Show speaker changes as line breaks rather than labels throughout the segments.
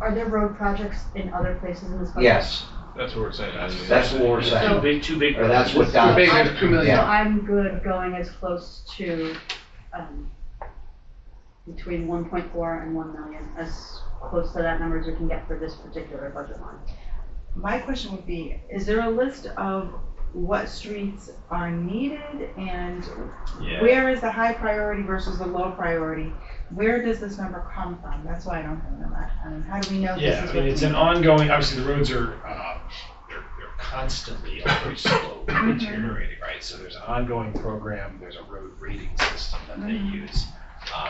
Are there road projects in other places in this budget?
Yes,
That's what we're saying.
that's what we're
Two
saying,
big, two big.
or that's what
projects.
Don.
Two big, two million.
So
Yeah.
I'm good going as close to, um, between one point four and one million, as close to that number as we can get for this particular budget line.
My question would be, is there a list of what streets are needed and where is the high priority versus the low priority? Where does this number come from? That's why I don't have that. I mean, how do we know this
Yeah,
is
I
what?
mean, it's an ongoing, obviously, the roads are, uh, they're they're constantly, always slow, deteriorating, right? So there's an ongoing program, there's a road rating system that they
Mhm.
use. Um,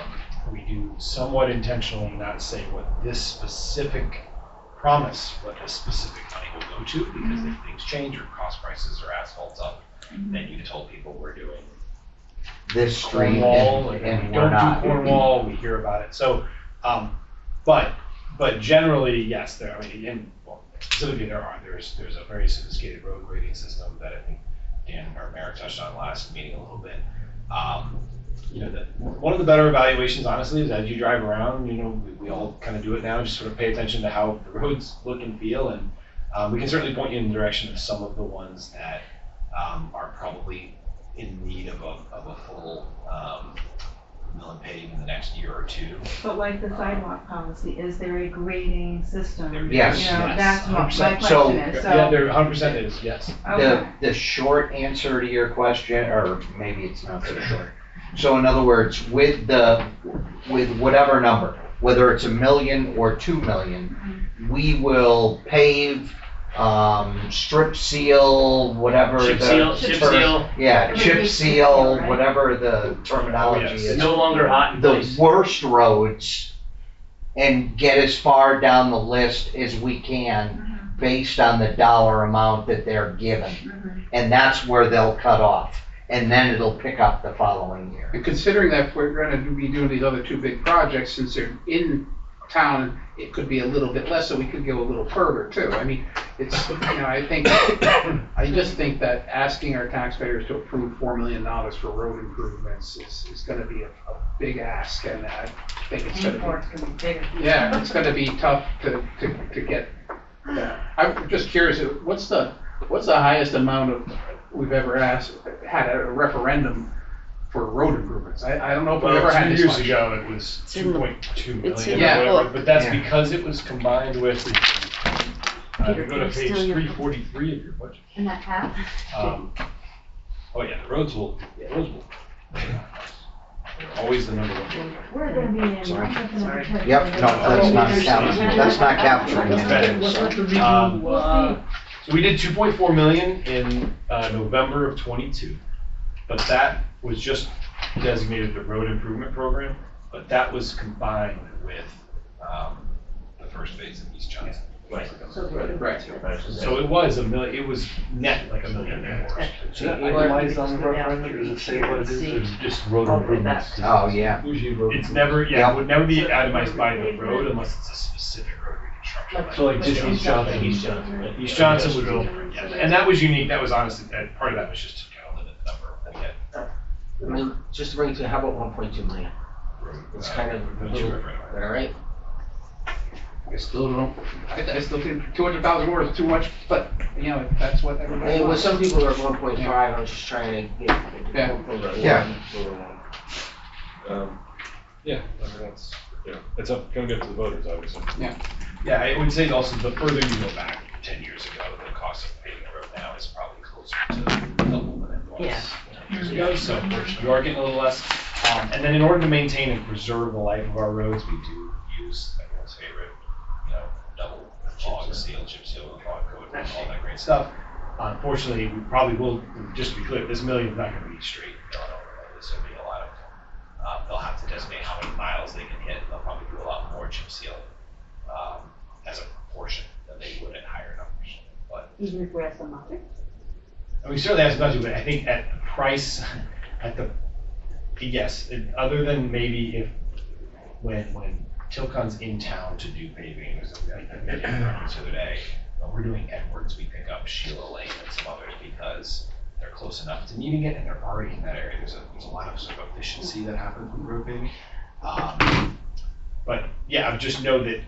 We do somewhat intentionally not say what this specific promise, what this specific money will go to, because if things change or cost prices or asphalt's up, then you told people we're doing
this street,
Cornwall,
and
and
and
we
we're
don't do
not.
Cornwall, we hear about it, so, um, but, but generally, yes, there, I mean, and, well, specifically there are, there's, there's a very sophisticated road grading system that I think Dan or Merrick touched on last meeting a little bit. Um, you know, that, one of the better evaluations honestly is as you drive around, you know, we, we all kind of do it now, just sort of pay attention to how the roads look and feel, and, um, we can certainly point you in the direction of some of the ones that, um, are probably in need of a, of a full, um, mill and pave in the next year or two.
But like the sidewalk policy, is there a grading system?
There-
Yes.
You know,
yes,
that's what my
100%.
So-
question is,
Yeah,
so,
there, hundred percent is, yes.
The,
okay.
the short answer to your question, or maybe it's not so short. So in other words, with the, with whatever number, whether it's a million or two million, we will pave, um, strip seal, whatever the.
Chip seal, chip
term-
seal,
Yeah,
Everything
chip
is chip seal,
seal,
right?
whatever the terminology
Yes.
is.
Oh, no longer hot in
the
place.
worst roads and get as far down the list as we can based on the dollar amount that they're given. And that's where they'll cut off. And then it'll pick up the following year.
And considering that we're gonna be doing these other two big projects, since they're in town, it could be a little bit less, so we could go a little further too. I mean, it's, you know, I think, I just think that asking our taxpayers to approve four million dollars for road improvements is, is gonna be a, a big ask, and I think it's
And
gonna
it's gonna be bigger.
be, yeah, it's gonna be tough to, to, to get. that. I'm just curious, what's the, what's the highest amount of, we've ever asked, had a referendum for road improvements? I, I don't know if we've ever
Well,
had
two
this
years
much.
ago, it was
It's in
two
the-
point two
it's
million
in
the
or whatever,
book.
but that's
Yeah.
because it was combined with. Uh, if you go to
Peter, it's still
page
your-
three forty-three of your budget.
And that half,
Um, Oh, yeah, the roads will, the roads will. They're Always the number one.
we're gonna be in.
Sorry.
Sorry.
Yep, no, that's not counting, that's not capturing
That's better.
it.
What's
So
what the
Um,
review, uh,
So we did two point four million in, uh, November of twenty-two, but that was just designated the road improvement program, but that was combined with, um, the first phase of East Johnson. Right.
Right.
So it was a mil, it was net like a million more.
Relies on the referendum, does it say what it is, or just road improvements?
Oh, yeah.
Usually road.
It's
improvements.
never, yeah,
Yeah.
it would never be itemized by the road unless it's a specific road reconstruction.
So like just East Johnson.
East Johnson, right?
East Johnson was,
Um,
yeah, and that was unique, that was honestly, that, part of that was just to kind of limit the number of, we had
I mean, just to bring it to, how about one point two million?
road,
It's
uh,
kind of, a
roads
little-
were right away.
all right?
I still don't, I, I still think two hundred thousand words is too much, but, you know, that's what
I
everybody
mean, with
wants.
some people are at one point five, I'm just trying to get.
Yeah.
Yeah.
Um, Yeah, I mean, that's, you know, it's up, gonna get to the voters, obviously.
Yeah, I would say also the further you go back ten years ago, the cost of paving the road now is probably closer to double than it was.
Yeah.
ten Years ago, so you are getting a little less. Um, and then in order to maintain and preserve the life of our roads, we do use everyone's favorite, you know, double log seal, chip seal, log coat, and all that great stuff. Unfortunately, we probably will, just to be clear, this million is not gonna be straight going over, like, this will be a lot of, um, they'll have to designate how many miles they can hit, and they'll probably do a lot more chip sealing um, as a portion than they would at higher numbers. But,
even if we're at some market.
and we certainly have some budget, but I think at the price, at the, yes, it- other than maybe if, when, when Tilcon's in town to do paving, there's a, I made a reference the other day, when we're doing Edwards, we pick up Sheila Lane and some others because they're close enough to needing it and they're already in that area. There's a, there's a lot of sort of efficiency that happens with road paving. Um, But, yeah, I just know that